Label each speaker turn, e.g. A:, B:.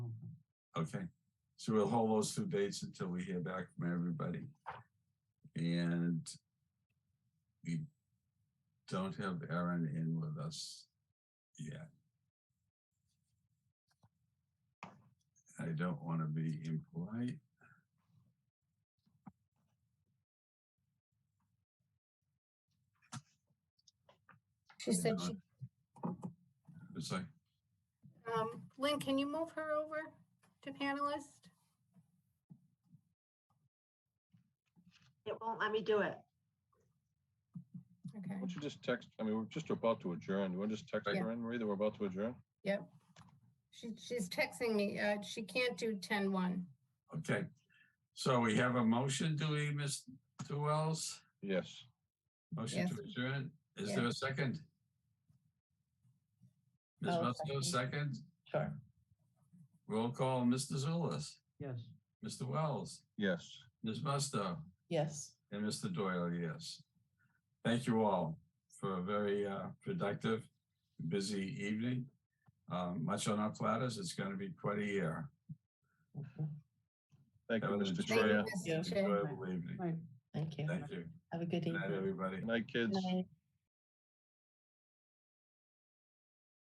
A: Okay, so we'll hold those two dates until we hear back from everybody. And we don't have Aaron in with us yet. I don't want to be impolite.
B: She said she,
A: It's like,
B: um, Lynn, can you move her over to panelist?
C: It won't let me do it.
B: Okay,
D: Why don't you just text, I mean, we're just about to adjourn. You want to just text
B: Yeah.
D: her in, Marie, that we're about to adjourn?
B: she, she's texting me, uh, she can't do ten one.
A: okay, so we have a motion, do we, Ms. Wells?
D: Yes.
A: Motion to adjourn. Is there a second? Ms.
E: I'll
A: Musto,
E: second.
A: second?
E: Sure.
A: Roll call, Mr. Zulus,
E: Yes.
A: Mr. Wells,
D: Yes.
A: Ms. Musto,
E: Yes.
A: and Mr. Doyle, yes. Thank you all for a very uh, productive, busy evening. Um, Much on our platters. It's going to be quite a year.
D: Thank you,
A: Have an
D: Mr.
B: Thank
D: Chair.
B: you,
E: Yeah.
B: Mr. Chair.
A: Enjoyable evening.
E: Thank you.
A: Thank you.
E: Have a good
A: Good night,
E: evening.
A: everybody.
D: Night, kids.
E: Good night.